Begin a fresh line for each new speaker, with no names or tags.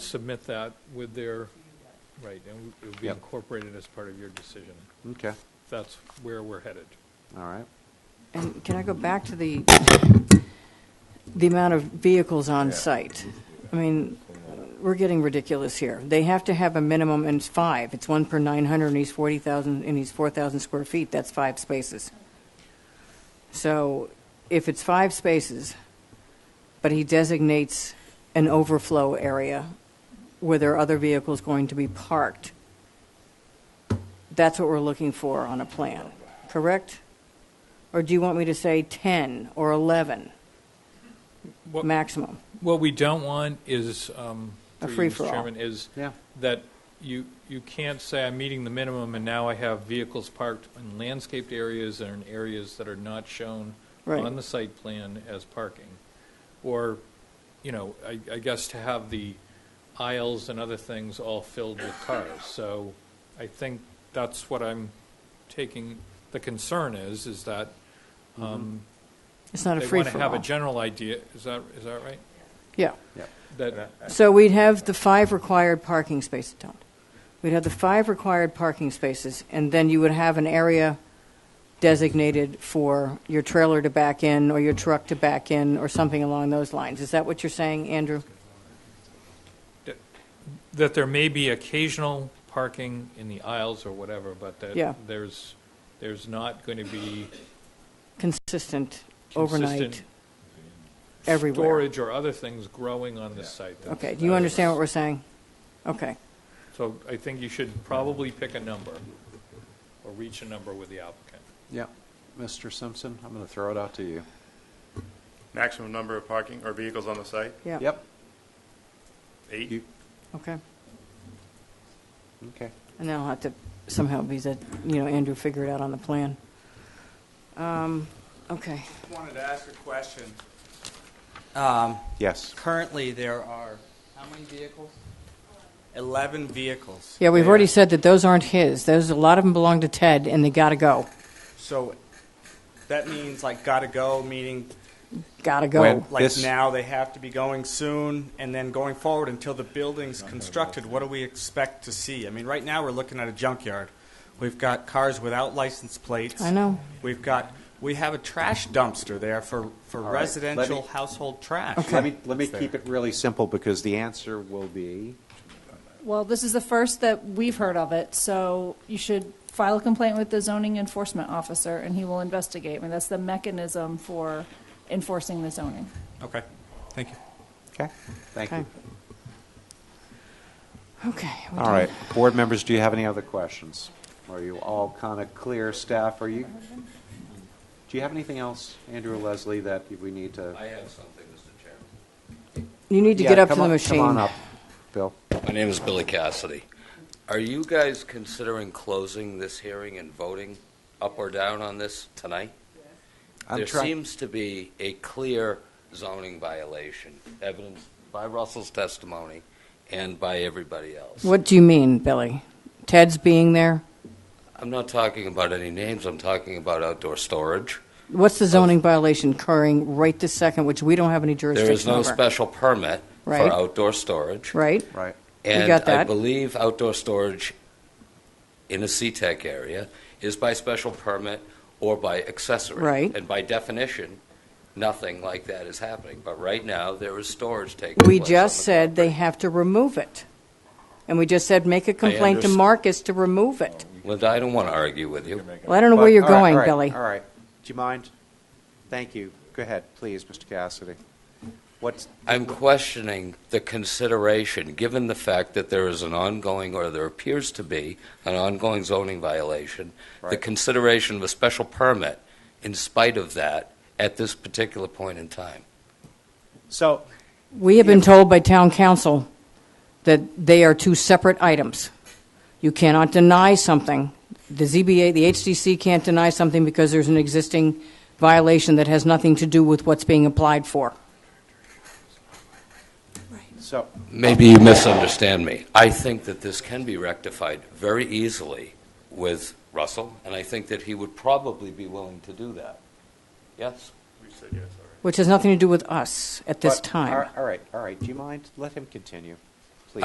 submit that with their, right, and it would be
Yep.
incorporated as part of your decision.
Okay,
That's where we're headed.
all right.
And can I go back to the, the amount of vehicles on site? I mean, we're getting ridiculous here. They have to have a minimum, and it's five. It's one per 900 and he's 40,000, and he's 4,000 square feet. That's five spaces. So if it's five spaces, but he designates an overflow area where there are other vehicles going to be parked, that's what we're looking for on a plan, correct? Or do you want me to say 10 or 11
What-
maximum?
What we don't want is, um,
A
through you, Mr.
free-for-all.
Chairman, is
Yeah.
that you, you can't say, I'm meeting the minimum, and now I have vehicles parked in landscaped areas and in areas that are not shown
Right.
on the site plan as parking. Or, you know, I, I guess to have the aisles and other things all filled with cars. So I think that's what I'm taking, the concern is, is that
It's not a
they want to have a
free-for-all.
general idea, is that, is that right?
Yeah.
Yep.
That,
So we'd have the five required parking spaces, Don. We'd have the five required parking spaces, and then you would have an area designated for your trailer to back in, or your truck to back in, or something along those lines. Is that what you're saying, Andrew?
that there may be occasional parking in the aisles or whatever, but
Yeah.
that there's, there's not going to be
Consistent, overnight,
consistent
everywhere?
storage or other things growing on the site. That's-
Okay, do you understand what we're saying? Okay.
So I think you should probably pick a number or reach a number with the applicant.
Yeah. Mr. Simpson, I'm going to throw it out to you.
Maximum number of parking or vehicles on the site,
Yeah.
Yep,
eight?
You-
Okay.
okay.
And that'll have to somehow be that, you know, Andrew figure it out on the plan. Um, Okay.
Wanted to ask a question.
Yes.
Um, Currently, there are, how many vehicles? 11 vehicles.
Yeah, we've
there.
already said that those aren't his. Those, a lot of them belong to Ted, and they gotta go.
So that means like gotta go, meaning
Gotta go.
When?
like
This-
now they have to be going soon and then going forward until the building's constructed. What do we expect to see? I mean, right now, we're looking at a junkyard. We've got cars without license plates.
I know.
We've got, we have a trash dumpster there for, for
right, let
residential
me-
household trash.
Let me, let me
It's there.
keep it really simple because the answer will be,
Well, this is the first that we've heard of it, so you should file a complaint with the zoning enforcement officer, and he will investigate. I mean, that's the mechanism for enforcing the zoning.
Okay, thank you.
okay, thank
Okay.
you.
Okay. we
All
done.
right, board members, do you have any other questions? Are you all kind of clear, staff? Are you, do you have anything else, Andrew or Leslie, that we need to?
I have something, Mr. Chairman.
You need to
Yeah,
get up to
come
the
on-
machine.
Come on up, Bill.
My name is Billy Cassidy. Are you guys considering closing this hearing and voting up or down on this tonight?
I'm
There
try-
seems to be a clear zoning violation, evidenced by Russell's testimony and by everybody else.
What do you mean, Billy? Ted's being there?
I'm not talking about any names, I'm talking about outdoor storage.
What's
Oh.
the zoning violation occurring right this second, which we don't have any
There is
jurisdiction
no
over?
special permit
Right.
for outdoor storage.
Right?
Right,
got
And I
that.
believe outdoor storage in a C-Tech area is by special permit or by accessory.
Right.
And by definition, nothing like that is happening. But right now, there is storage taking
We
place on
just
the
said they
property.
have to remove it. And we just said, make a complaint to
underst-
Marcus to remove it.
Linda, I don't want to argue with you.
Well, I don't know where
But-
you're
all right,
going,
all right,
Billy.
All right. Do you mind? Thank you. Go ahead, please, Mr. Cassidy. What's,
I'm questioning the consideration, given the fact that there is an ongoing, or there appears to be, an ongoing zoning violation, the
Right.
consideration of a special permit in spite of that at this particular point in time.
so,
We have been told by town council that they are two separate items. You cannot deny something. The ZBA, the HDC can't deny something because there's an existing violation that has nothing to do with what's being applied for.
so,
Maybe you misunderstand me. I think that this can be rectified very easily with Russell, and I think that he would probably be willing to do that. Yes?
We said yes, all right.
Which has nothing to do with us at this
but-
time.
all- All right, all right. Do you mind? Let him continue.